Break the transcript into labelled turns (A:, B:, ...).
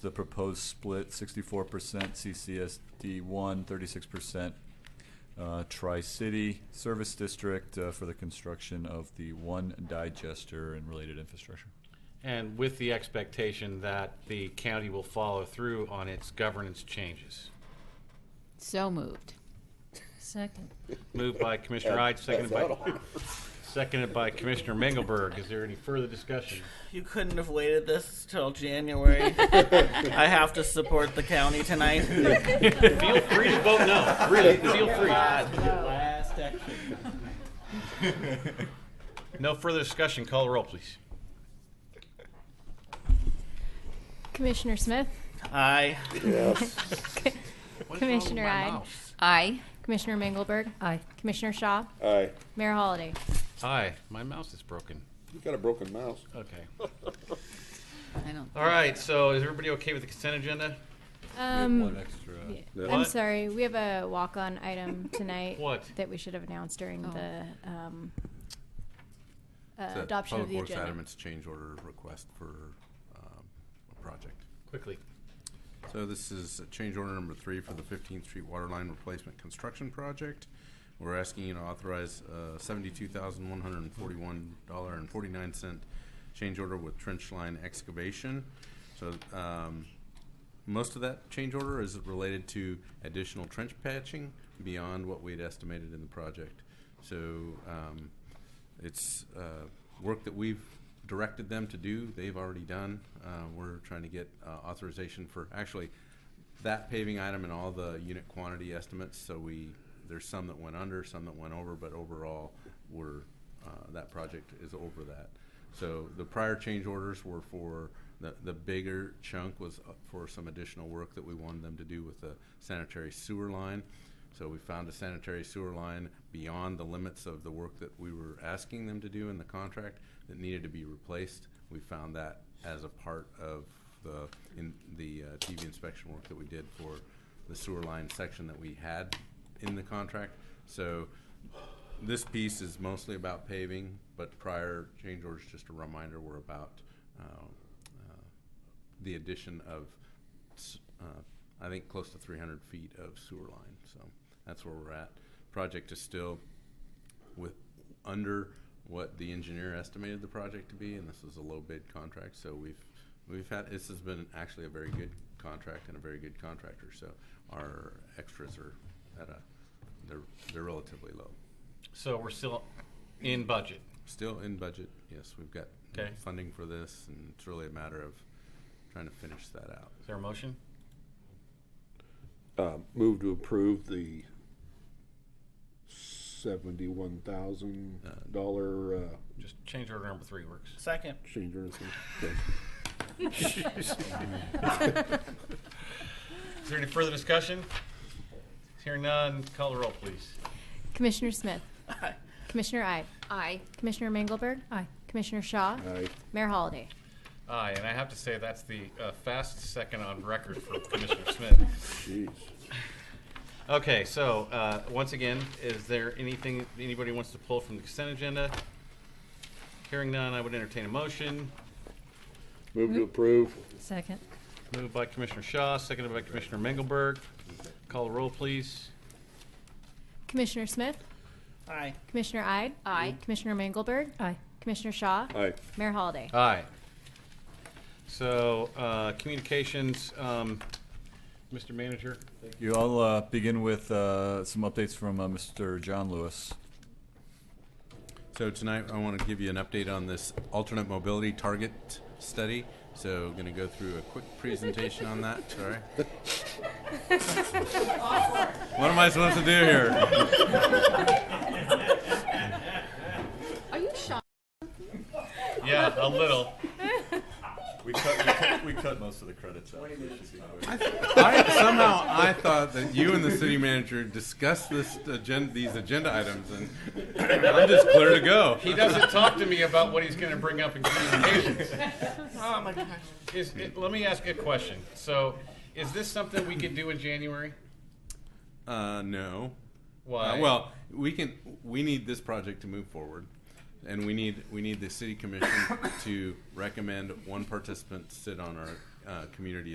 A: the proposed split, sixty-four percent CCSD one, thirty-six percent uh, Tri-City Service District uh, for the construction of the one digester and related infrastructure.
B: And with the expectation that the county will follow through on its governance changes.
C: So moved.
D: Second.
B: Moved by Commissioner Ide, seconded
E: That's
B: by, seconded by Commissioner Mengelberg. Is there any further discussion?
F: You couldn't have waited this till January. I have to support the county tonight.
B: Feel free to vote no, really, feel free.
F: Last action.
B: No further discussion, call the roll, please.
D: Commissioner Smith?
F: Aye.
E: Yes.
D: Commissioner Ide?
C: Aye.
D: Commissioner Mengelberg? Aye. Commissioner Shaw?
E: Aye.
D: Mayor Holliday?
B: Aye, my mouse is broken.
E: You've got a broken mouse.
B: Okay.
C: I don't.
D: Oh.
B: All right, so is everybody okay with the consent agenda?
A: One
D: Um,
A: extra.
D: I'm
B: What?
D: sorry, we have a walk-on item tonight.
B: What?
D: That we should have announced during the, um, uh,
G: It's a
D: adoption of the
G: Public Works
D: agenda.
G: Adamant's change order request for um, a project.
B: Quickly.
G: So this is uh, change order number three for the 15th Street Water Line Replacement Construction Project. We're asking you to authorize uh, $72,141.49 change order with trench line excavation. So um, most of that change order is related to additional trench patching beyond what we'd estimated in the project. So um, it's uh, work that we've directed them to do. They've already done. Uh, we're trying to get uh, authorization for actually that paving item and all the unit quantity estimates. So we there's some that went under, some that went over, but overall, we're uh, that project is over that. So the prior change orders were for the, the bigger chunk was uh, for some additional work that we wanted them to do with the sanitary sewer line. So we found a sanitary sewer line beyond the limits of the work that we were asking them to do in the contract that needed to be replaced. We found that as a part of the, in the uh, TV inspection work that we did for the sewer line section that we had in the contract. So this piece is mostly about paving, but prior change orders, just a reminder, were about uh, uh, the addition of, s- uh, I think, close to 300 feet of sewer line. So that's where we're at. Project is still with, under what the engineer estimated the project to be, and this is a low bid contract, so we've, we've had, this has been actually a very good contract and a very good contractor, so our extras are at a, they're, they're relatively low.
B: So we're still in budget.
G: Still in budget, yes, we've got
B: Okay.
G: funding for this, and it's really a matter of trying to finish that out.
B: Is there a motion?
E: Uh, move to approve the seventy-one thousand dollar, uh,
B: Just change order number three works.
F: Second.
E: change order. thing.
B: Is there any further discussion? Hearing none, call the roll, please.
D: Commissioner Smith?
F: Aye.
D: Commissioner Ide?
C: Aye.
D: Commissioner Mengelberg? Aye. Commissioner Shaw?
E: Aye.
D: Mayor Holliday?
B: Aye, and I have to say, that's the uh, fastest second on record for Commissioner Smith.
E: Jeez.
B: Okay, so, uh, once again, is there anything anybody wants to pull from the consent agenda? Hearing none, I would entertain a motion.
E: Move to approve.
D: Second.
B: Moved by Commissioner Shaw, seconded by Commissioner Mengelberg. Call the roll, please.
D: Commissioner Smith?
F: Aye.
D: Commissioner Ide?
C: Aye.
D: Commissioner Mengelberg? Aye. Commissioner Shaw?
E: Aye.
D: Mayor Holliday?
B: Aye. So, uh, communications, um, Mr. Manager?
A: Thank you. I'll uh, begin with uh, some updates from uh, Mr. John Lewis.
G: So tonight, I want to give you an update on this alternate mobility target study. So going to go through a quick presentation on that, sorry. What am I supposed to do here?
C: Are you shocked?
B: Yeah, a little.
A: We cut, we cut, we cut most of the credits out.
G: I, somehow I thought that you and the city manager discussed this agenda, these agenda items, and I'm just clear to go.
B: He doesn't talk to me about what he's going to bring up in communications. Oh my gosh. Is, it, let me ask you a question. So, is this something we could do in January?
G: Uh, no.
B: Why?
G: Uh, well, we can. We need this project to move forward, and we need we need the city commission to recommend one participant sit on our uh, community